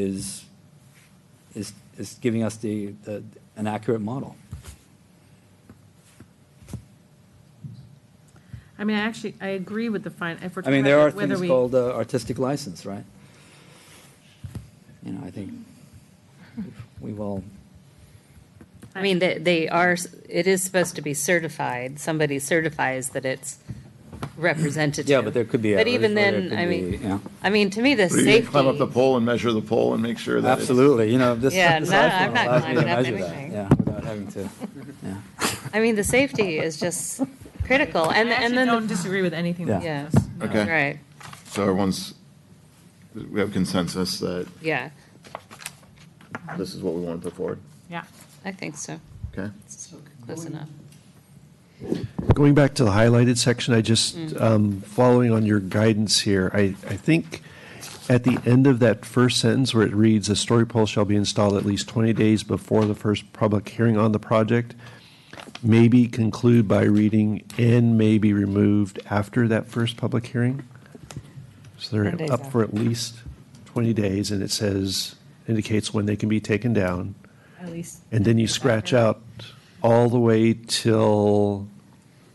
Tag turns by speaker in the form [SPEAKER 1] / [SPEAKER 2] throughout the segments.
[SPEAKER 1] is, is, is giving us the, the- an accurate model.
[SPEAKER 2] I mean, I actually, I agree with the fine, if we're
[SPEAKER 1] I
[SPEAKER 2] talking
[SPEAKER 1] mean, there are
[SPEAKER 2] about whether
[SPEAKER 1] things
[SPEAKER 2] we.
[SPEAKER 1] called uh, artistic license, right? You know, I think we've all,
[SPEAKER 3] I mean, they, they are, it is supposed to be certified. Somebody certifies that it's representative.
[SPEAKER 1] yeah, but there could be.
[SPEAKER 3] But
[SPEAKER 1] errors,
[SPEAKER 3] even
[SPEAKER 1] or there
[SPEAKER 3] then,
[SPEAKER 1] could
[SPEAKER 3] I
[SPEAKER 1] be-
[SPEAKER 3] mean,
[SPEAKER 1] yeah.
[SPEAKER 3] I mean, to me, the
[SPEAKER 4] What, are you gonna
[SPEAKER 3] safety.
[SPEAKER 4] Climb up the pole and measure the pole and make sure that it's-
[SPEAKER 1] Absolutely, you know, this.
[SPEAKER 3] Yeah,
[SPEAKER 1] this
[SPEAKER 3] no,
[SPEAKER 1] iPhone
[SPEAKER 3] I'm not
[SPEAKER 1] allows me to
[SPEAKER 3] climbing up
[SPEAKER 1] measure that,
[SPEAKER 3] anything.
[SPEAKER 1] Yeah, without having to, yeah.
[SPEAKER 3] I mean, the safety is just critical, and
[SPEAKER 2] I
[SPEAKER 3] and
[SPEAKER 2] actually
[SPEAKER 3] then
[SPEAKER 2] don't disagree with anything that
[SPEAKER 3] Yeah.
[SPEAKER 2] says. no.
[SPEAKER 3] the,
[SPEAKER 4] Okay,
[SPEAKER 3] right,
[SPEAKER 4] so everyone's, we have consensus that
[SPEAKER 3] yeah,
[SPEAKER 4] this is what we want to put forward,
[SPEAKER 2] Yeah.
[SPEAKER 3] I think so.
[SPEAKER 4] okay?
[SPEAKER 3] It's Close enough.
[SPEAKER 5] Going back to the highlighted section, I just, um, following on your guidance here, I, I think at the end of that first sentence where it reads, "A story pole shall be installed at least 20 days before the first public hearing on the project," maybe conclude by reading, "and may be removed after that first public hearing." So
[SPEAKER 3] Ten days
[SPEAKER 5] they're up for
[SPEAKER 3] after.
[SPEAKER 5] at least 20 days, and it says, indicates when they can be taken down.
[SPEAKER 2] At least.
[SPEAKER 5] And then you scratch out all the way till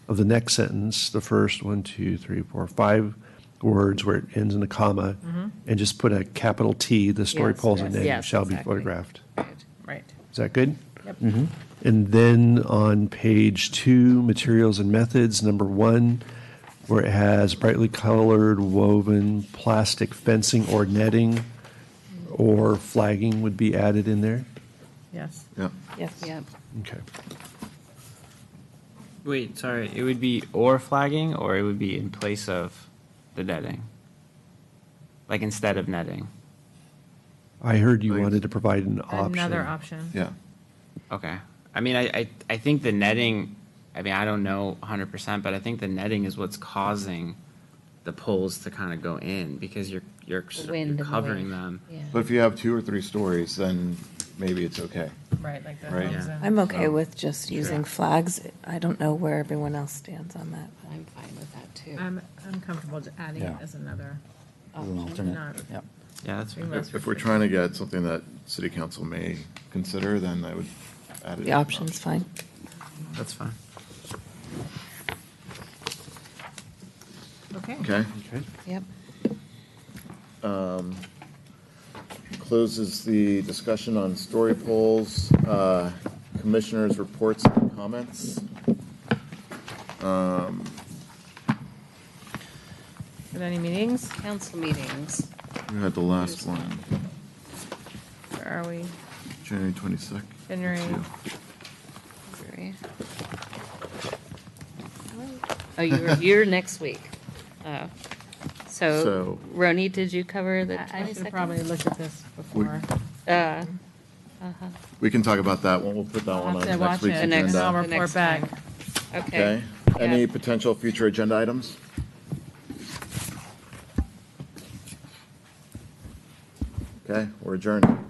[SPEAKER 5] of the next sentence, the first one, two, three, four, five words where it ends in a comma, and just put a capital T, the story
[SPEAKER 3] Mm-hmm. Yes,
[SPEAKER 5] polls
[SPEAKER 3] yes,
[SPEAKER 5] and name
[SPEAKER 3] yes,
[SPEAKER 5] shall be
[SPEAKER 3] exactly.
[SPEAKER 5] photographed.
[SPEAKER 3] Right.
[SPEAKER 2] Right.
[SPEAKER 5] Is that good? Mm-hmm.
[SPEAKER 2] Yep.
[SPEAKER 5] And then on page two, materials and methods, number one, where it has brightly colored woven plastic fencing or netting or flagging would be added in there.
[SPEAKER 2] Yes.
[SPEAKER 4] Yeah,
[SPEAKER 2] Yes.
[SPEAKER 3] Yep.
[SPEAKER 5] Okay.
[SPEAKER 6] Wait, sorry. It would be or flagging, or it would be in place of the netting. Like instead of netting.
[SPEAKER 5] I heard you
[SPEAKER 4] Thanks.
[SPEAKER 5] wanted to provide an option.
[SPEAKER 2] Another option.
[SPEAKER 4] yeah.
[SPEAKER 6] Okay. I mean, I, I, I think the netting. I mean, I don't know 100%, but I think the netting is what's causing the poles to kind of go in because you're you're,
[SPEAKER 3] The
[SPEAKER 6] sort of-
[SPEAKER 3] wind and the
[SPEAKER 6] you're covering
[SPEAKER 3] wave.
[SPEAKER 6] them.
[SPEAKER 3] Yeah.
[SPEAKER 4] But if you have two or three stories, then maybe it's okay.
[SPEAKER 2] Right, like the
[SPEAKER 4] Right.
[SPEAKER 2] homes and-
[SPEAKER 7] I'm okay with just using flags. I don't know where everyone else stands on that.
[SPEAKER 3] I'm fine with that too.
[SPEAKER 2] I'm, I'm comfortable just adding it
[SPEAKER 1] Yeah.
[SPEAKER 2] as another.
[SPEAKER 1] as
[SPEAKER 3] Oh,
[SPEAKER 1] an alternate,
[SPEAKER 2] Not-
[SPEAKER 1] yeah.
[SPEAKER 6] Yeah, that's fair.
[SPEAKER 2] Unless
[SPEAKER 4] If if we're trying to get something that city council may consider, then I would add it.
[SPEAKER 7] The option's fine.
[SPEAKER 6] That's fine.
[SPEAKER 2] Okay.
[SPEAKER 4] Okay,
[SPEAKER 3] Yep.
[SPEAKER 4] closes the discussion on story polls, uh, commissioners' reports and comments.
[SPEAKER 2] With any meetings,
[SPEAKER 3] Council meetings.
[SPEAKER 4] We had the last one,
[SPEAKER 2] where are we?
[SPEAKER 4] January twenty-second.
[SPEAKER 2] January.
[SPEAKER 3] Sorry. Oh, you're, you're next week. Oh. So,
[SPEAKER 4] So-
[SPEAKER 3] Roni, did you cover the
[SPEAKER 2] I I should have
[SPEAKER 3] 22nd?
[SPEAKER 2] probably looked at this before.
[SPEAKER 3] Uh,
[SPEAKER 4] We can talk about that one. We'll put that
[SPEAKER 2] I'll
[SPEAKER 4] one
[SPEAKER 2] have to
[SPEAKER 4] on
[SPEAKER 2] watch
[SPEAKER 4] next
[SPEAKER 2] it
[SPEAKER 4] week's
[SPEAKER 2] and
[SPEAKER 3] next-
[SPEAKER 2] I'll
[SPEAKER 3] the
[SPEAKER 4] agenda.
[SPEAKER 2] report
[SPEAKER 3] next
[SPEAKER 2] back.
[SPEAKER 3] time. okay.
[SPEAKER 4] Okay?
[SPEAKER 3] Yeah.
[SPEAKER 4] Any potential future agenda items? Okay, we're adjourned.